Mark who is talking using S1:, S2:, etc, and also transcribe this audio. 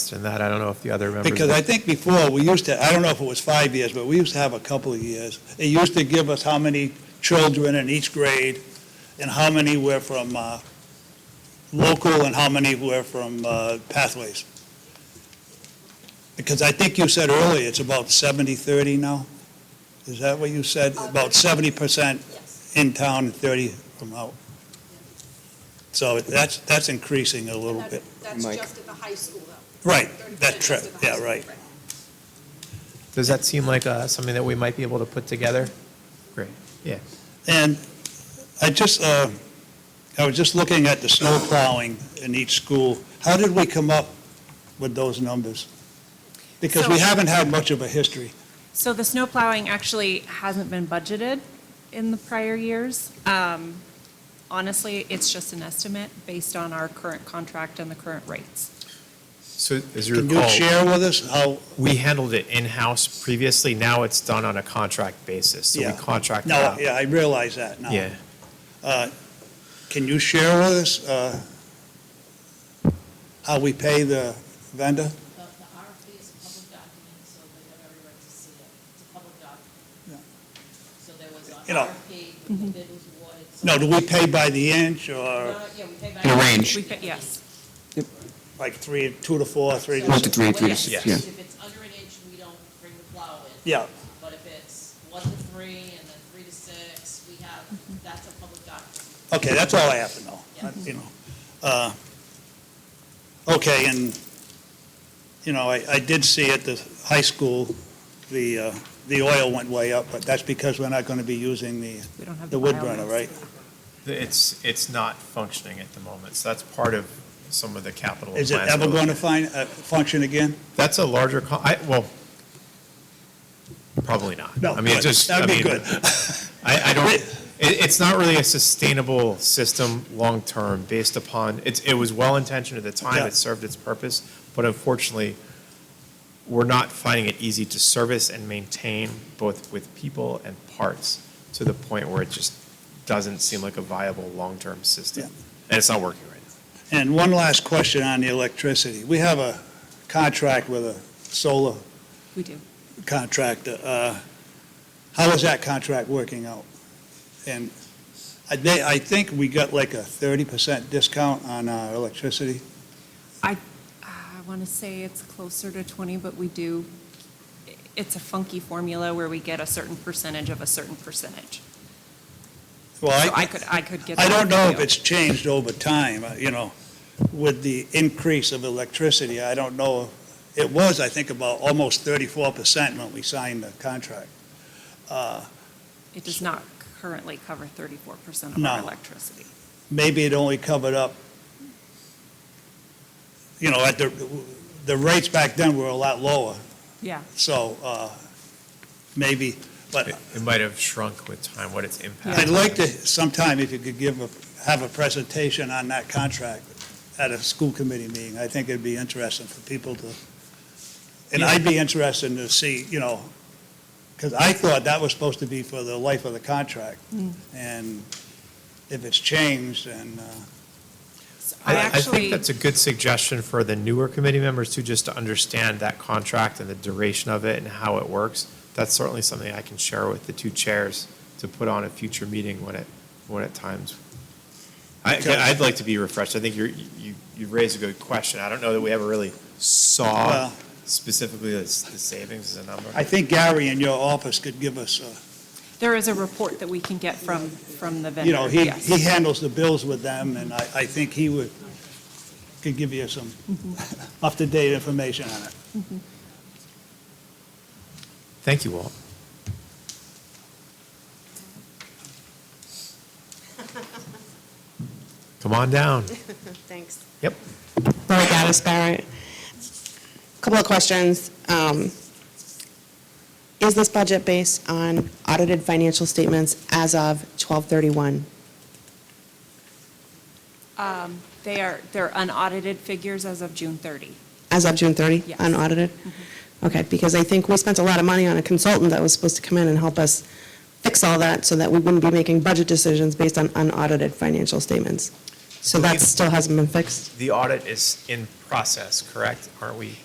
S1: interest in that. I don't know if the other members.
S2: Because I think before, we used to, I don't know if it was five years, but we used to have a couple of years. It used to give us how many children in each grade, and how many were from uh, local, and how many were from uh, pathways. Because I think you said earlier, it's about 70-30 now? Is that what you said? About 70%
S3: Yes.
S2: in town and 30 from out? So that's, that's increasing a little bit.
S3: That's
S4: Mike.
S3: just at the high school, though.
S2: Right,
S3: 30%
S2: that
S3: just
S2: trip,
S3: at the high
S2: yeah,
S3: school.
S2: right.
S1: Does that seem like uh, something that we might be able to put together?
S2: And I just, uh, I was just looking at the snow plowing in each school. How did we come up with those numbers? Because we
S5: So-
S2: haven't had much of a history.
S5: So the snow plowing actually hasn't been budgeted in the prior years. Um, Honestly, it's just an estimate based on our current contract and the current rates.
S1: So as
S2: Can you share with us how,
S1: we handled it in-house previously. Now it's done on a contract basis. So
S2: Yeah.
S1: we contract it
S2: no,
S1: out.
S2: yeah, I realize that now. Uh,
S1: Yeah.
S2: Can you share with us uh, how we pay the vendor?
S6: The, the RFP is a public document, so they have every right to see it. It's a public
S2: Yeah.
S6: document. So there was
S2: You
S6: an
S2: know-
S6: RFP, the
S3: Mm-hmm.
S6: bid was awarded. so-
S2: No, do we pay by the uh, inch
S6: No,
S2: or
S6: no, Yeah, we pay by.
S4: The range.
S5: We, fit- yes,
S2: like three, two to four, three
S6: So
S2: to
S4: One
S2: six?
S4: to three, three to
S6: yes,
S4: six, yeah.
S6: If it's under an inch, we don't bring the plow in.
S2: Yeah,
S6: But if it's one to three and then three to six, we have,
S3: Mm-hmm.
S6: that's a public document.
S2: Okay, that's all I have to know,
S6: Yeah.
S2: you know. Uh, Okay, and, you know, I, I did see at the high school, the, uh, the oil went way up, but that's because we're not going to be using the,
S5: we don't have the
S2: the wood burner,
S5: biomass.
S2: right?
S1: It's, it's not functioning at the moment. So that's part of some of the capital.
S2: Is it
S1: plans
S2: ever
S1: we're
S2: going to find, uh, function again?
S1: That's a larger, co- I, well, probably not.
S2: No,
S1: I mean, it
S2: good.
S1: just, I
S2: That'd be
S1: mean,
S2: good.
S1: I, I don't, it, it's not really a sustainable system long-term based upon, it's, it was well-intentioned at the time,
S2: Yeah.
S1: it served its purpose, but unfortunately, we're not finding it easy to service and maintain both with people and parts to the point where it just doesn't seem like a viable long-term system. And it's not working right now.
S2: And one last question on the electricity. We have a contract with a solar
S5: We do.
S2: contractor. uh, How is that contract working out? And I they- I think we got like a 30% discount on our electricity.
S5: Uh, I want to say it's closer to 20, but we do, it's a funky formula where we get a certain percentage of a certain percentage.
S2: Well,
S5: So I
S2: I
S5: could, I could get.
S2: I
S5: that
S2: don't know
S5: for
S2: if
S5: you.
S2: it's changed over time, uh, you know, with the increase of electricity. I don't know. It was, I think, about almost 34% when we signed the contract. Uh,
S5: It does not currently cover 34% of
S2: No.
S5: our electricity.
S2: Maybe it only covered up, you know, at the, the rates back then were a lot lower.
S5: Yeah.
S2: So uh, maybe, but
S1: It, it might have shrunk with time, what its impact.
S2: I'd like to, sometime if you could give, a have a presentation on that contract at a school committee meeting. I think it'd be interesting for people to, and I'd be interested to see, you know, because I thought that was supposed to be for the life of the contract. And if it's changed, and, uh,
S5: So I
S1: I I think
S5: actually,
S1: that's a good suggestion for the newer committee members too, just to understand that contract and the duration of it and how it works. That's certainly something I can share with the two chairs to put on a future meeting when it, when at times. I,
S2: Okay.
S1: I'd like to be refreshed. I think you're, you, you raised a good question. I don't know that we ever really saw
S2: Well-
S1: specifically the, s- the savings as a number.
S2: I think Gary in your office could give us, uh,
S5: there is a report that we can get from, from the
S2: you know,
S5: vendor,
S2: he,
S5: yes.
S2: he handles the bills with them, and I, I think he would, could give you some
S5: Mm-hmm.
S2: up-to-date information on it.
S1: Thank you, Walt. Come on down.
S7: Thanks.
S1: Yep.
S7: Lori Gaddis Barrett. Couple of questions. Um, Is this budget based on audited financial statements as of 12/31?
S5: Um, They are, they're unaudited figures as of June 30.
S7: As of June 30?
S5: Yes.
S7: Unaudited? Okay, because I think we spent a lot of money on a consultant that was supposed to come in and help us fix all that so that we wouldn't be making budget decisions based on unaudited financial statements. So that still hasn't been fixed?
S1: The audit is in process, correct? Aren't we?